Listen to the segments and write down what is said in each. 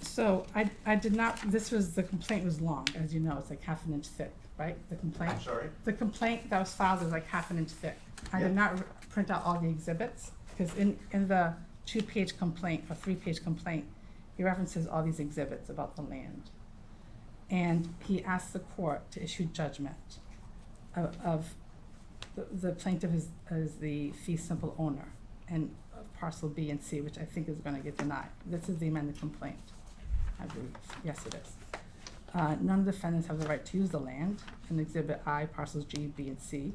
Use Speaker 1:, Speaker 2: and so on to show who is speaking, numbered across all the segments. Speaker 1: So I, I did not, this was, the complaint was long, as you know, it's like half an inch thick, right? The complaint,
Speaker 2: I'm sorry?
Speaker 1: the complaint that was filed is like half an inch thick. I
Speaker 2: Yeah.
Speaker 1: did not r- print out all the exhibits, because in, in the two-page complaint or three-page complaint, he references all these exhibits about the land. And he asked the court to issue judgment of, of, the- the plaintiff is, is the fee simple owner and of parcel B and C, which I think is gonna get denied. This is the amended complaint, I believe, yes it is. Uh, none of the defendants have the right to use the land in Exhibit I, parcels G, B, and C.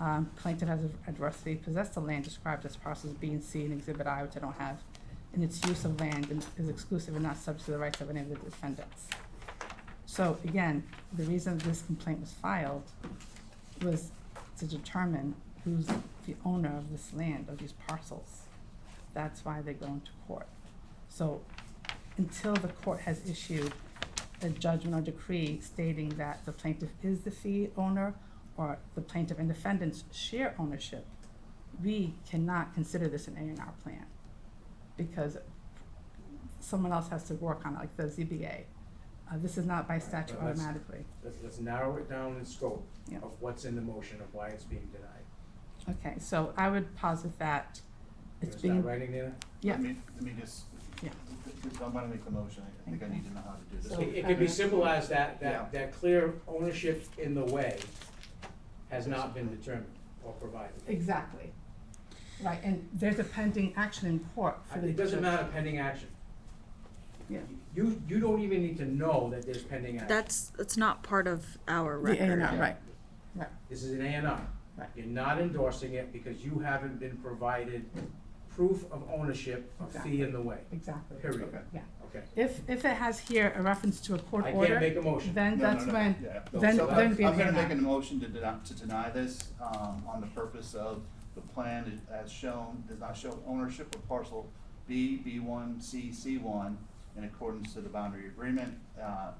Speaker 1: Um, plaintiff has adversely possessed the land described as parcels B and C in Exhibit I, which I don't have, and its use of land and is exclusive and not subject to the rights of any of the defendants. So again, the reason this complaint was filed was to determine who's the owner of this land, of these parcels. That's why they go into court. So until the court has issued a judgment or decree stating that the plaintiff is the fee owner or the plaintiff and defendants share ownership, we cannot consider this an A and R plan because someone else has to work on it, like the ZBA. Uh, this is not by statute
Speaker 2: Right, but let's-
Speaker 1: automatically.
Speaker 2: Let's, let's narrow it down in scope
Speaker 1: Yeah.
Speaker 2: of what's in the motion of why it's being denied.
Speaker 1: Okay, so I would posit that
Speaker 2: You
Speaker 1: it's
Speaker 2: understand
Speaker 1: being,
Speaker 2: writing there?
Speaker 1: yeah.
Speaker 3: Let me, let me just,
Speaker 1: Yeah.
Speaker 3: I'm gonna make the motion, I think I
Speaker 1: Okay.
Speaker 3: need to know how to do
Speaker 1: So- uh-huh.
Speaker 3: this.
Speaker 2: It, it could be simple as that,
Speaker 3: Yeah.
Speaker 2: that, that clear ownership in the way has not been determined or provided.
Speaker 1: Exactly. Right, and there's a pending action in court for the.
Speaker 2: It doesn't matter pending action.
Speaker 1: Yeah.
Speaker 2: You, you don't even need to know that there's pending action.
Speaker 4: That's, that's not part of our
Speaker 1: The A
Speaker 4: record.
Speaker 1: and R, right.
Speaker 2: This is an A and R.
Speaker 1: Right.
Speaker 2: You're not endorsing it because you haven't been provided proof of ownership of fee in the way,
Speaker 1: Exactly.
Speaker 2: period.
Speaker 3: Okay.
Speaker 1: Yeah.
Speaker 2: Okay.
Speaker 1: If, if it has here a reference to a court
Speaker 2: I can't
Speaker 1: order,
Speaker 2: make a motion.
Speaker 1: then
Speaker 3: No, no,
Speaker 1: that's
Speaker 3: no,
Speaker 1: when,
Speaker 3: yeah.
Speaker 1: then-
Speaker 3: So, uh,
Speaker 1: then be
Speaker 3: I'm
Speaker 1: an
Speaker 3: gonna
Speaker 1: A&R.
Speaker 3: make a motion to deny, to deny this, um, on the purpose of the plan i- as shown, does not show ownership of parcel B, B one, C, C one, in accordance to the boundary agreement, uh,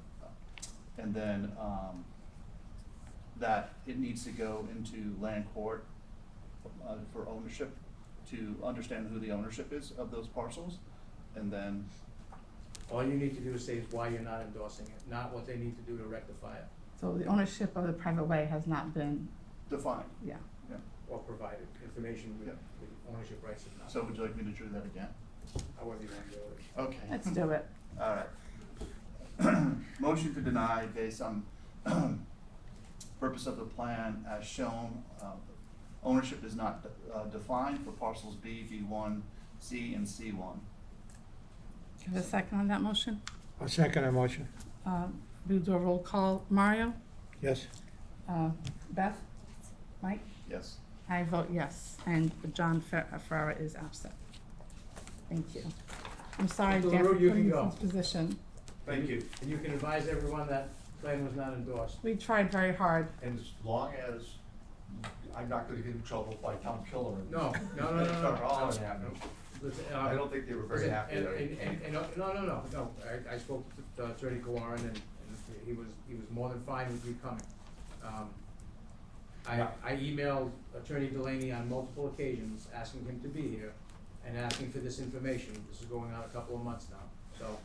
Speaker 3: and then, um, that it needs to go into land court, uh, for ownership, to understand who the ownership is of those parcels, and then
Speaker 2: All you need to do is say is why you're not endorsing it, not what they need to do to rectify it
Speaker 1: so the ownership of the private way has not been,
Speaker 3: define.
Speaker 1: yeah.
Speaker 2: or provide it. Information with,
Speaker 3: Yeah.
Speaker 2: with ownership rights if not.
Speaker 3: So would you like me to do that again?
Speaker 2: However you want to do it.
Speaker 3: Okay.
Speaker 1: Let's do it.
Speaker 3: All right. Motion to deny based on purpose of the plan as shown. Uh, Ownership is not uh, defined for parcels B, B one, C, and C one.
Speaker 1: Do you have a second on that motion?
Speaker 5: I'll second the motion.
Speaker 1: Uh, We'll do a roll call. Mario?
Speaker 5: Yes.
Speaker 1: Uh, Beth? Mike?
Speaker 3: Yes.
Speaker 1: I vote yes, and John Fer- uh, Ferrara is absent. Thank you. I'm sorry,
Speaker 2: Mr.
Speaker 1: Dan, for
Speaker 2: LaRue, you
Speaker 1: putting
Speaker 2: can
Speaker 1: us in
Speaker 2: go.
Speaker 1: this position.
Speaker 6: Thank you.
Speaker 2: And you can advise everyone that plan was not endorsed.
Speaker 1: We tried very hard.
Speaker 6: And as long as I'm not gonna get in trouble by Tom Killer and.
Speaker 2: No, no, no, no, no.
Speaker 6: They're all
Speaker 2: no,
Speaker 6: unhappy.
Speaker 2: no. Listen, uh,
Speaker 6: I don't think they were very
Speaker 2: listen,
Speaker 6: happy
Speaker 2: And,
Speaker 6: that I-
Speaker 2: and, and- and, uh, no, no, no, no, I, I spoke to uh, Attorney Kawarin and, and he was, he was more than fine with you coming. Um, I,
Speaker 6: Yeah.
Speaker 2: I emailed Attorney Delaney on multiple occasions, asking him to be here and asking for this information, this is going on a couple of months now, so.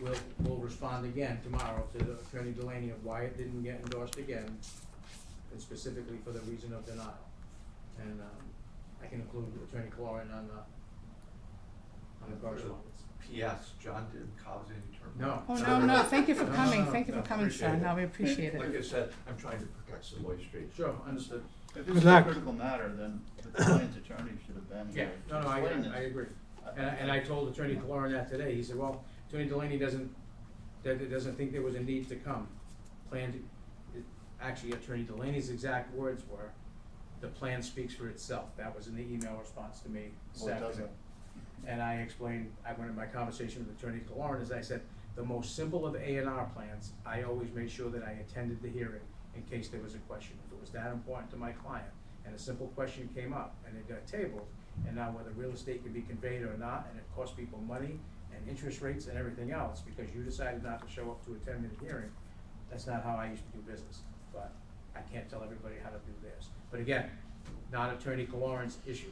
Speaker 2: We'll, we'll respond again tomorrow to Attorney Delaney of why it didn't get endorsed again, and specifically for the reason of denial. And, um, I can include Attorney Cloran on the, on the correspondence.
Speaker 6: P.S. John didn't cause any trouble.
Speaker 2: No.
Speaker 1: Oh, no, no, thank you for
Speaker 2: No, no,
Speaker 1: coming,
Speaker 2: no,
Speaker 1: thank you for
Speaker 6: no,
Speaker 1: coming, sir,
Speaker 6: appreciate it.
Speaker 1: no, we appreciate
Speaker 6: Like I
Speaker 1: it.
Speaker 6: said, I'm trying to protect Savoy Street.
Speaker 2: Sure, understood.
Speaker 3: Understood. If
Speaker 5: Good
Speaker 3: this is a
Speaker 5: luck.
Speaker 3: critical matter, then the client's attorney should have been
Speaker 2: Yeah,
Speaker 3: here. to
Speaker 2: no, no, I,
Speaker 3: explain this.
Speaker 2: I agree. And, and I told Attorney Cloran that today, he said, well, Attorney Delaney doesn't, that, that doesn't think there was a need to come. Planned, it- actually Attorney Delaney's exact words were, the plan speaks for itself, that was in the email response to me this
Speaker 3: Well, it
Speaker 2: afternoon.
Speaker 3: doesn't.
Speaker 2: And I explained, I went in my conversation with Attorney Cloran, as I said, the most simple of A and R plans, I always made sure that I attended the hearing in case there was a question. If it was that important to my client, and a simple question came up, and it got tabled, and now whether real estate can be conveyed or not, and it cost people money and interest rates and everything else, because you decided not to show up to a ten-minute hearing, that's not how I used to do business, but I can't tell everybody how to do theirs. But again, not Attorney Lauren's issue.